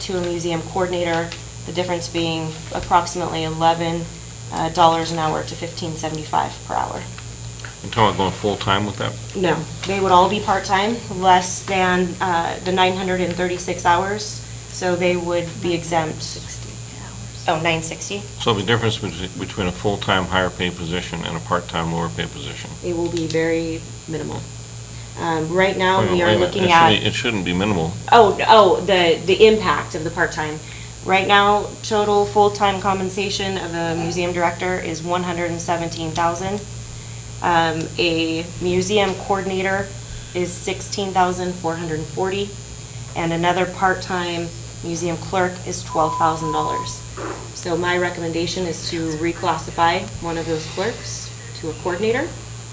to a museum coordinator, the difference being approximately eleven uh, dollars an hour to fifteen seventy-five per hour. You're talking about going full-time with that? No, they would all be part-time, less than uh, the 936 hours, so they would be exempt. Oh, 960? So the difference bet- between a full-time higher paid position and a part-time lower paid position? It will be very minimal. Um, Right now, Wait a we minute, wait are a minute. looking It at... should be- It shouldn't be minimal. Oh, oh, the, the impact of the part-time. Right now, total full-time compensation of a museum director is one hundred and seventeen thousand. Um, a museum coordinator is sixteen thousand four hundred and forty, and another part-time museum clerk is twelve thousand dollars. So my recommendation is to reclassify one of those clerks to a coordinator,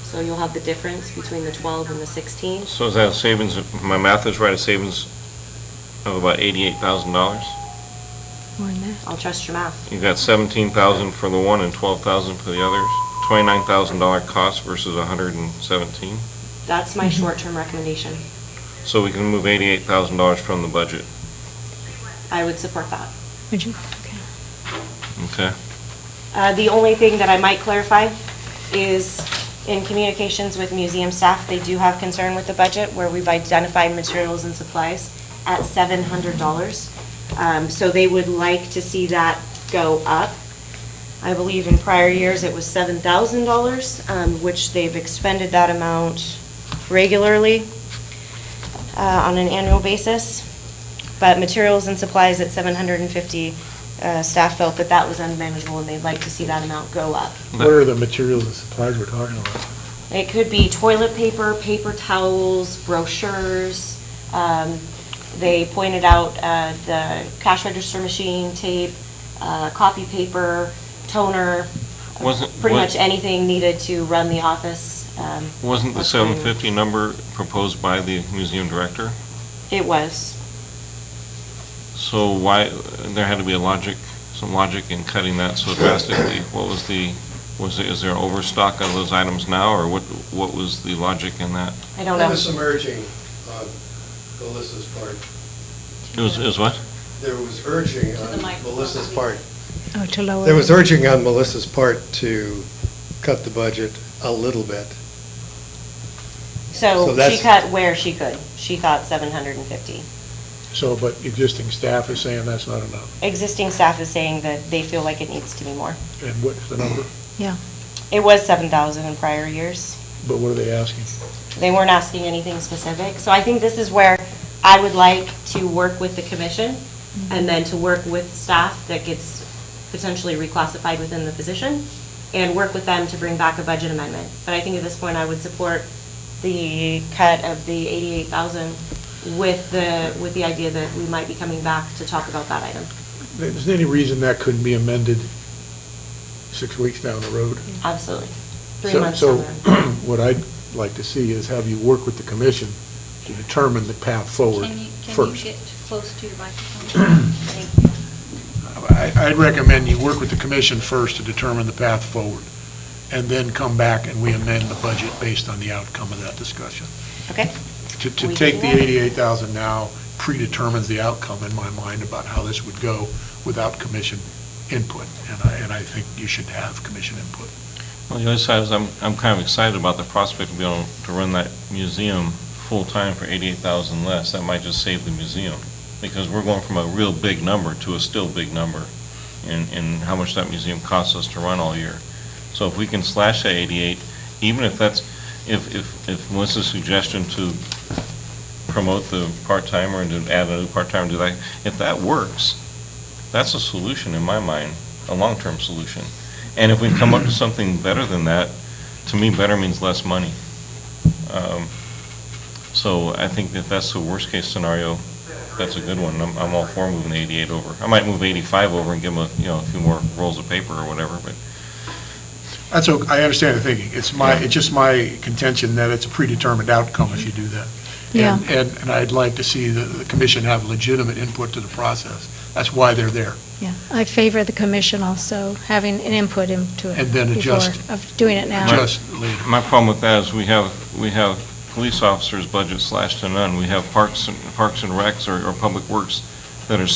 so you'll have the difference between the twelve and the sixteen. So is that a savings, if my math is right, a savings of about eighty-eight thousand dollars? More than that. I'll trust your math. You got seventeen thousand for the one and twelve thousand for the others? Twenty-nine thousand dollar cost versus a hundred and seventeen? That's my short-term recommendation. So we can move eighty-eight thousand dollars from the budget, I would support that. Would you? Okay. okay? Uh, The only thing that I might clarify is in communications with museum staff, they do have concern with the budget where we've identified materials and supplies at $700. Um, So they would like to see that go up. I believe in prior years, it was $7,000, um, which they've expended that amount regularly uh, on an annual basis. But materials and supplies at 750, uh, staff felt that that was unmanageable and they'd like to see that amount go up. What are the materials and supplies we're talking about? It could be toilet paper, paper towels, brochures. Um, They pointed out uh, the cash register machine, tape, uh, copy paper, toner, Wasn't- pretty wa- much anything needed to run the office. um, Wasn't the was pretty- seven fifty number proposed by the museum director? It was. So why, there had to be a logic, some logic in cutting that so drastically. What was the, was, is there overstock of those items now, or what, what was the logic in that? I don't know. There was some urging on Melissa's part. It was, it was what? There was urging on uh, Melissa's part. Oh, to lower. There was urging on Melissa's part to cut the budget a little bit. So So she that's- cut where she could. She thought 750. So, but existing staff is saying that's not enough. Existing staff is saying that they feel like it needs to be more. And what's the number? Yeah. It was 7,000 in prior years. But what are they asking? They weren't asking anything specific. So I think this is where I would like to work with the commission and then to work with staff that gets potentially reclassified within the position and work with them to bring back a budget amendment. But I think at this point, I would support the cut of the 88,000 with the, with the idea that we might be coming back to talk about that item. Is there any reason that couldn't be amended six weeks down the road? Absolutely. Three So- months so down the road. What I'd like to see is have you work with the commission to determine the path forward Can you, can you first. get close to your microphone? Thank you. I- I'd recommend you work with the commission first to determine the path forward, and then come back and we amend the budget based on the outcome of that discussion. Okay? To, to We take can the do that. eighty-eight thousand now predetermines the outcome in my mind about how this would go without commission input, and I, and I think you should have commission input. Well, the other side is, I'm, I'm kind of excited about the prospect of being able to run that museum full-time for eighty-eight thousand less. That might just save the museum, because we're going from a real big number to a still big number in, in how much that museum costs us to run all year. So if we can slash that eighty-eight, even if that's, if, if, if Melissa's suggestion to promote the part-timer and to add a new part-timer, do that, if that works, that's a solution in my mind, a long-term solution. And if we come up to something better than that, to me, better means less money. Um, So I think that that's the worst-case scenario. That's a good one. I'm, I'm all for moving the 88 over. I might move 85 over and give them, a you know, a few more rolls of paper or whatever, but That's, o- I understand the thinking, it's my, it's just my contention that it's a predetermined outcome if you do that. Yeah. And- And, and I'd like to see the, the commission have legitimate input to the process, that's why they're there. Yeah. I favor the commission also having an input into it. And then before- adjust. Of doing it now. Just later. my problem with that is we have, we have police officers' budget slashed to none. We have parks, and parks and recs or, or public works that are